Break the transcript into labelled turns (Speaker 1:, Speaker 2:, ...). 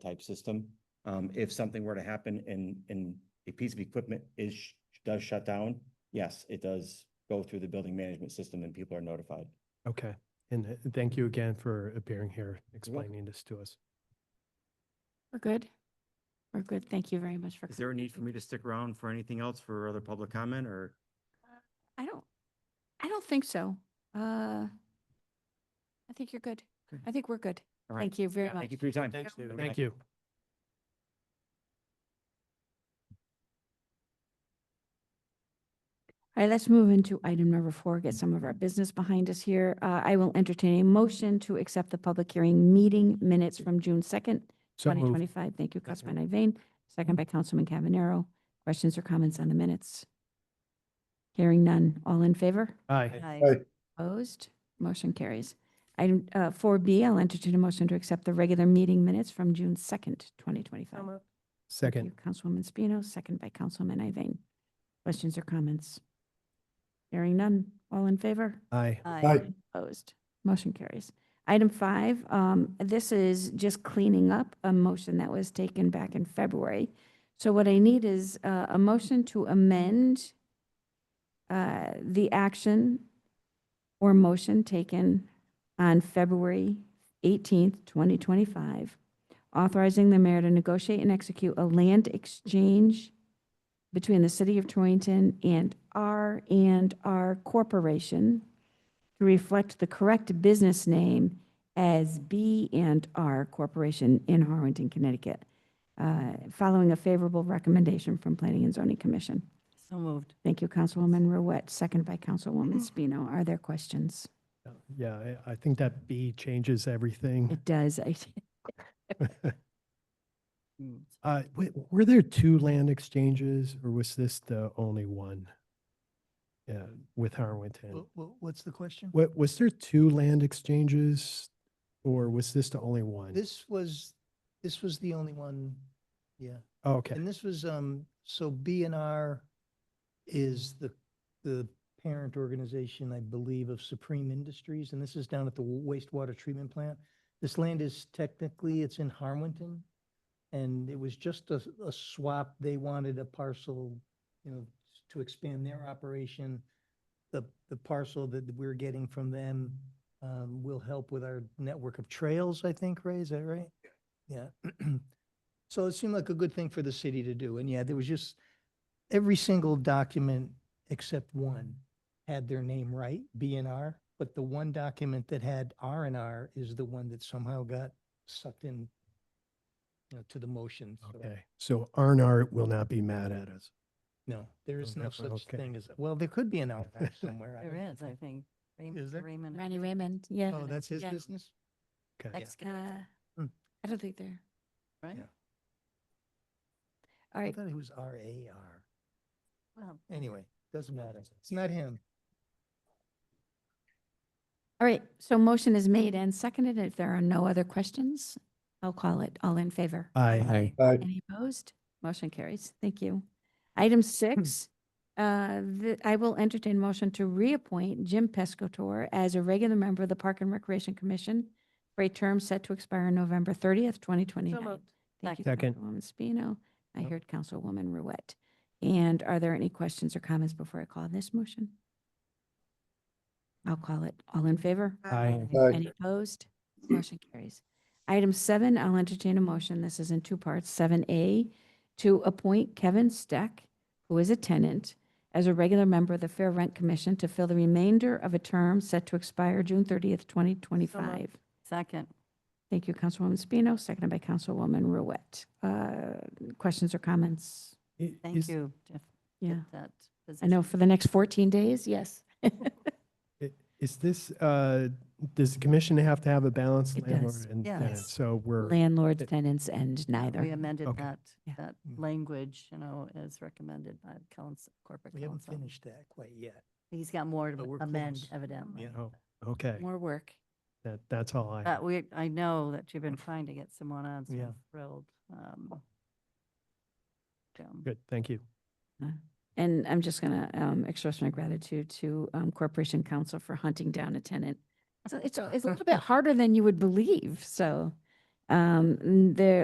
Speaker 1: type system. Um, if something were to happen and, and a piece of equipment is, sh- does shut down, yes, it does go through the building management system and people are notified.
Speaker 2: Okay, and uh, thank you again for appearing here,
Speaker 1: welcome.
Speaker 2: explaining this to us.
Speaker 3: We're good. We're good. Thank you very much for.
Speaker 1: Is there a
Speaker 3: coming.
Speaker 1: need for me to stick around for anything else for other public comment or?
Speaker 3: I don't, I don't think so. Uh, I think you're good.
Speaker 1: Okay.
Speaker 3: I think we're good.
Speaker 1: All right.
Speaker 3: Thank you very much.
Speaker 1: Thank you for your time.
Speaker 3: Thanks, David.
Speaker 2: Thank you.
Speaker 3: All right, let's move into item number four, get some of our business behind us here. Uh, I will entertain a motion to accept the public hearing meeting minutes from June second,
Speaker 2: So
Speaker 3: twenty
Speaker 2: moved.
Speaker 3: twenty-five. Thank you, Councilman Iveyne, second by Councilman Cavanero. Questions or comments on the minutes? Hearing none. All in favor?
Speaker 2: Aye,
Speaker 3: Opposed? Motion carries. Item uh, four B, I'll entertain a motion to accept the regular meeting minutes from June second, twenty twenty-five.
Speaker 2: second.
Speaker 3: Councilwoman Spino, second by Councilman Iveyne. Questions or comments? Hearing none. All in favor?
Speaker 2: Aye,
Speaker 4: Uh,
Speaker 3: Opposed. Motion carries. Item five, um, this is just cleaning up a motion that was taken back in February. So what I need is uh, a motion to amend uh, the action or motion taken on February 18th, 2025, authorizing the mayor to negotiate and execute a land exchange between the city of Torrington and R and R Corporation to reflect the correct business name as B and R Corporation in Harwinton, Connecticut, uh, following a favorable recommendation from Planning and Zoning Commission.
Speaker 4: So moved.
Speaker 3: Thank you, Councilwoman Ruette, second by Councilwoman Spino. Are there questions?
Speaker 2: Uh, yeah, I, I think that B changes everything.
Speaker 3: It does. I-
Speaker 4: Mm.
Speaker 2: Uh, wait, were there two land exchanges or was this the only one? Yeah, with Harwinton.
Speaker 5: what's the question?
Speaker 2: What, was there two land exchanges or was this the only one?
Speaker 5: This was, this was the only one, yeah.
Speaker 2: Oh, Okay,
Speaker 5: And this was, um, so B and R is the, the parent organization, I believe, of Supreme Industries, and this is down at the wastewater treatment plant. This land is technically, it's in Harwinton, and it was just a, a swap. They wanted a parcel, you know, to expand their operation. The, the parcel that we're getting from them, um, will help with our network of trails, I think, Ray, is that right? Yeah. So it seemed like a good thing for the city to do. And yeah, there was just, every single document except one had their name right, B and R. But the one document that had R and R is the one that somehow got sucked in, you know, to the motion. so,
Speaker 2: okay. So Arnart will not be mad at us.
Speaker 5: No, there is
Speaker 2: Oh,
Speaker 5: no
Speaker 2: definitely,
Speaker 5: such
Speaker 2: okay.
Speaker 5: thing as, well, there could be an R and R somewhere. I don't-
Speaker 4: There is, I think. Raym-
Speaker 5: Is there?
Speaker 4: Raymond.
Speaker 3: Randy Raymond, yeah.
Speaker 5: Oh, that's his
Speaker 3: Yeah.
Speaker 5: business?
Speaker 2: Okay.
Speaker 4: Excavating,
Speaker 3: Uh,
Speaker 5: Hmm.
Speaker 3: I don't think they're,
Speaker 4: right?
Speaker 5: yeah.
Speaker 3: all
Speaker 5: I
Speaker 3: right.
Speaker 5: thought it was R A R.
Speaker 4: Well,
Speaker 5: Anyway, doesn't matter. It's not him.
Speaker 3: All right, so motion is made and seconded. If there are no other questions, I'll call it. All in favor?
Speaker 2: Aye,
Speaker 3: Any opposed? Motion carries. Thank you.
Speaker 2: Hmm.
Speaker 3: Item six, uh, the- I will entertain motion to reappoint Jim Pescator as a regular member of the Park and Recreation Commission for a term set to expire November 30th, 2029.
Speaker 4: moved.
Speaker 3: Thank you,
Speaker 2: Second.
Speaker 3: Councilwoman Spino. I
Speaker 2: Yep.
Speaker 3: heard Councilwoman Ruette. And are there any questions or comments before I call this motion? I'll call it. All in favor?
Speaker 2: aye,
Speaker 3: Any opposed? Motion carries. Item seven, I'll entertain a motion. This is in two parts. Seven A, to appoint Kevin Steck, who is a tenant, as a regular member of the Fair Rent Commission to fill the remainder of a term set to expire June thirtieth, twenty twenty-five.
Speaker 4: Second,
Speaker 3: Thank you, Councilwoman Spino, seconded by Councilwoman Ruette. Uh, Questions or comments?
Speaker 2: I-
Speaker 4: thank
Speaker 2: is-
Speaker 4: you, Jeff. get
Speaker 3: Yeah,
Speaker 4: That
Speaker 3: I know for the next fourteen days, yes.
Speaker 2: I- Is this, uh, does the commission have to have a balanced
Speaker 3: It does.
Speaker 2: landlord and
Speaker 4: Yeah.
Speaker 2: tenant?
Speaker 4: Yes.
Speaker 2: So we're,
Speaker 3: Landlords, tenants, and
Speaker 4: position. We
Speaker 3: neither.
Speaker 4: amended
Speaker 2: Okay.
Speaker 4: that,
Speaker 3: Yeah.
Speaker 4: that
Speaker 5: Mm.
Speaker 4: language, you know, as recommended by the council, corporate
Speaker 5: We haven't
Speaker 4: council.
Speaker 5: finished that quite yet.
Speaker 4: He's got more
Speaker 5: but
Speaker 4: to
Speaker 5: we're
Speaker 4: amend
Speaker 5: close.
Speaker 4: evidently.
Speaker 5: Yeah.
Speaker 2: oh, okay,
Speaker 3: More work.
Speaker 2: that, that's all I,
Speaker 4: But
Speaker 2: have.
Speaker 4: we, I know that you've been trying to get someone on, so
Speaker 5: Yeah.
Speaker 4: I'm thrilled. um, Jim.
Speaker 2: good, thank you.
Speaker 3: And I'm just going to express my gratitude to um, Corporation Counsel for hunting down a tenant. So It's, a- it's a little bit harder than you would believe, so. um, n- There,